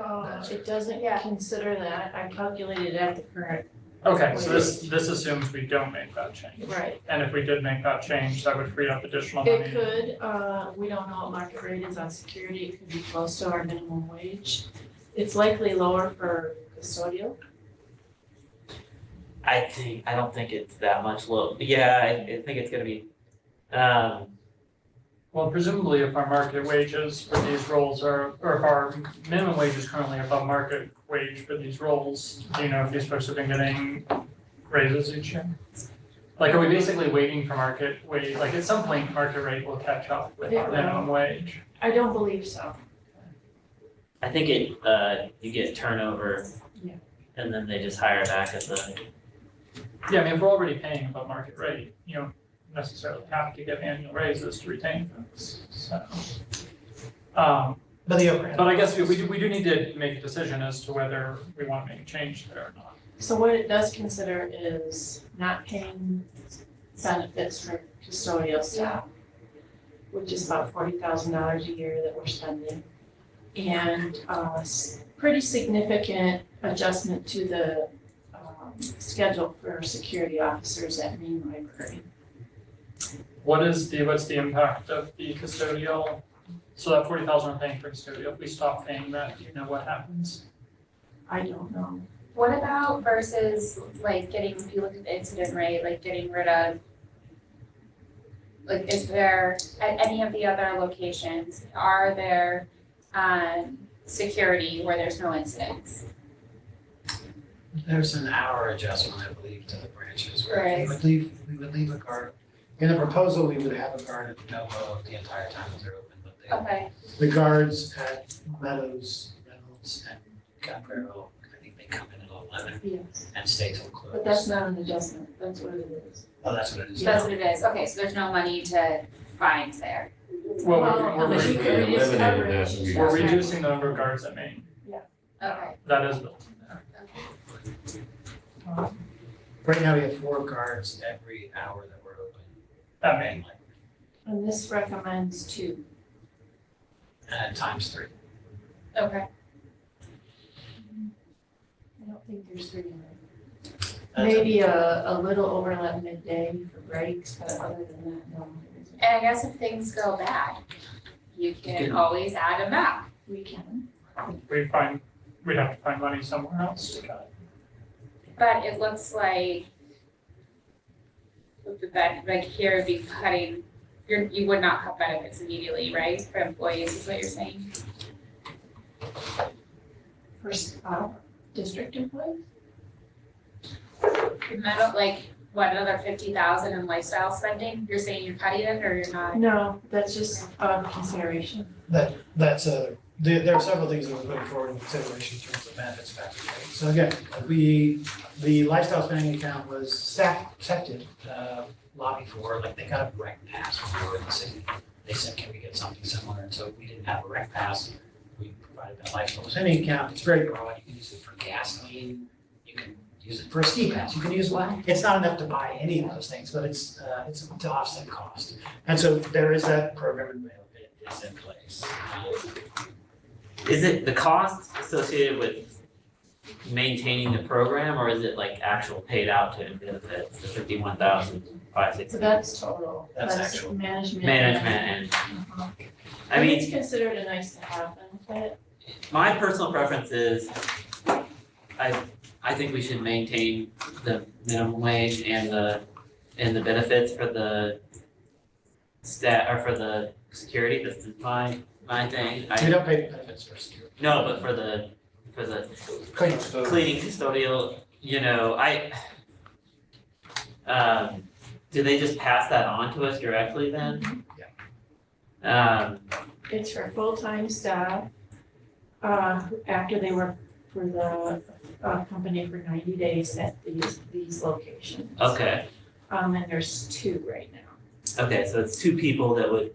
No, it doesn't Yeah. consider that, I calculated at the current, Okay, so this, this assumes we don't make that change. right. And if we did make that change, that would free up additional money. It could, uh, we don't know what market rate is on security, it could be close to our minimum wage. It's likely lower for custodial, I think, I don't think it's that much low, yeah, I, I think it's gonna be, um, Well, presumably if our market wages for these roles are, or if our minimum wage is currently above market wage for these roles, do you know if these folks have been getting raises each year? Like, are we basically waiting for market wage, like at some point, market rate will catch up with It our will. minimum wage? I don't believe so. I think it, uh, you get turnover. Yeah. And then they just hire back at the, Yeah, I mean, if we're already paying above market rate, you don't necessarily have to get annual raises to retain folks, so. Um, But the overhead. But I guess we we do, we do need to make a decision as to whether we wanna make a change there or not. So what it does consider is not paying benefits for custodial staff, which is about forty thousand dollars a year that we're spending. And uh s- pretty significant adjustment to the um schedule for security officers at Main Library. What is the, what's the impact of the custodial, so that forty thousand we're paying for custodial, if we stop paying that, do you know what happens? I don't know. What about versus like getting, if you look at the incident rate, like getting rid of, like is there, at any of the other locations, are there, um, security where there's no incidents? There's an hour adjustment, I believe, to the branches where we Right. would leave, we would leave a guard. In the proposal, we would have a guard at Novo the entire time that they're open, but Oh. they, Okay, the guards at Meadows, Reynolds and Caprero, I think they come in at eleven Yes. and stay till close. But that's not an adjustment, that's what it is. Oh, that's what it is. that's what it is, okay, so there's no money to find there. Well, Well, we're, but you we're, could reduce eliminated that coverage. and we- we're reducing the number of guards at Maine, Okay, that is built in there. Um, Right now, we have four guards every hour that we're open. At Maine, And this recommends two. Uh, times three. okay, I don't think there's three in there. That's- Maybe a, a little overlap midday for breaks, but other than that, no. there isn't. and I guess if things go bad, you can can- always add them back. We can. we find, we'd have to find money somewhere else to cut. But it looks like with the ben- like here would be cutting, you're, you would not cut benefits immediately, right, for employees is what you're saying? First, uh, district employees? And I don't like, what, another fifty thousand in lifestyle spending, you're saying you're cutting it or you're not? No, that's just a consideration. That, that's a, there, there are several things that we're putting forward in consideration in terms of benefits factor. right? So again, we, the lifestyle spending account was staff, accepted, uh, lobby for, like they got a rec pass for the city. They said, can we get something similar? And so we didn't have a rec pass. We provided that lifestyle spending account. It's very broad. You can use it for gasoline. You can use it for a ski pass. You can use, it's not enough to buy any of those things, but it's, uh, it's to offset cost. And so there is that program available. It is in place. Uh, is it the cost associated with maintaining the program or is it like actual paid out to benefits, the fifty-one thousand five So sixty? that's total. That's actual. Management. Management Uh-huh. and, I mean, It's considered a nice to have benefit. my personal preference is I I think we should maintain the minimum wage and the and the benefits for the stat or for the security, that's my my thing. We I don't pay benefits for security. no, but for the for the Clean. cleaning custodial, you know, I um, do they just pass that on to us directly then? Yeah. Um, It's for full-time staff, uh, after they work for the, uh, company for ninety days at these, these locations. okay, Um, and there's two right now. okay, so it's two people that would,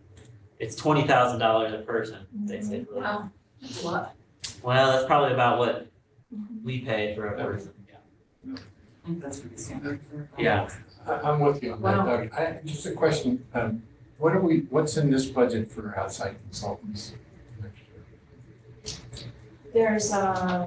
it's twenty thousand dollars a person, basically. Wow. That's a lot. Well, that's probably about what Mhm. we pay for a person. That's pretty standard. Yeah. I, I'm with you on that, Wow. Doug. I, just a question, um, what are we, what's in this budget for outside consultants? There's, um,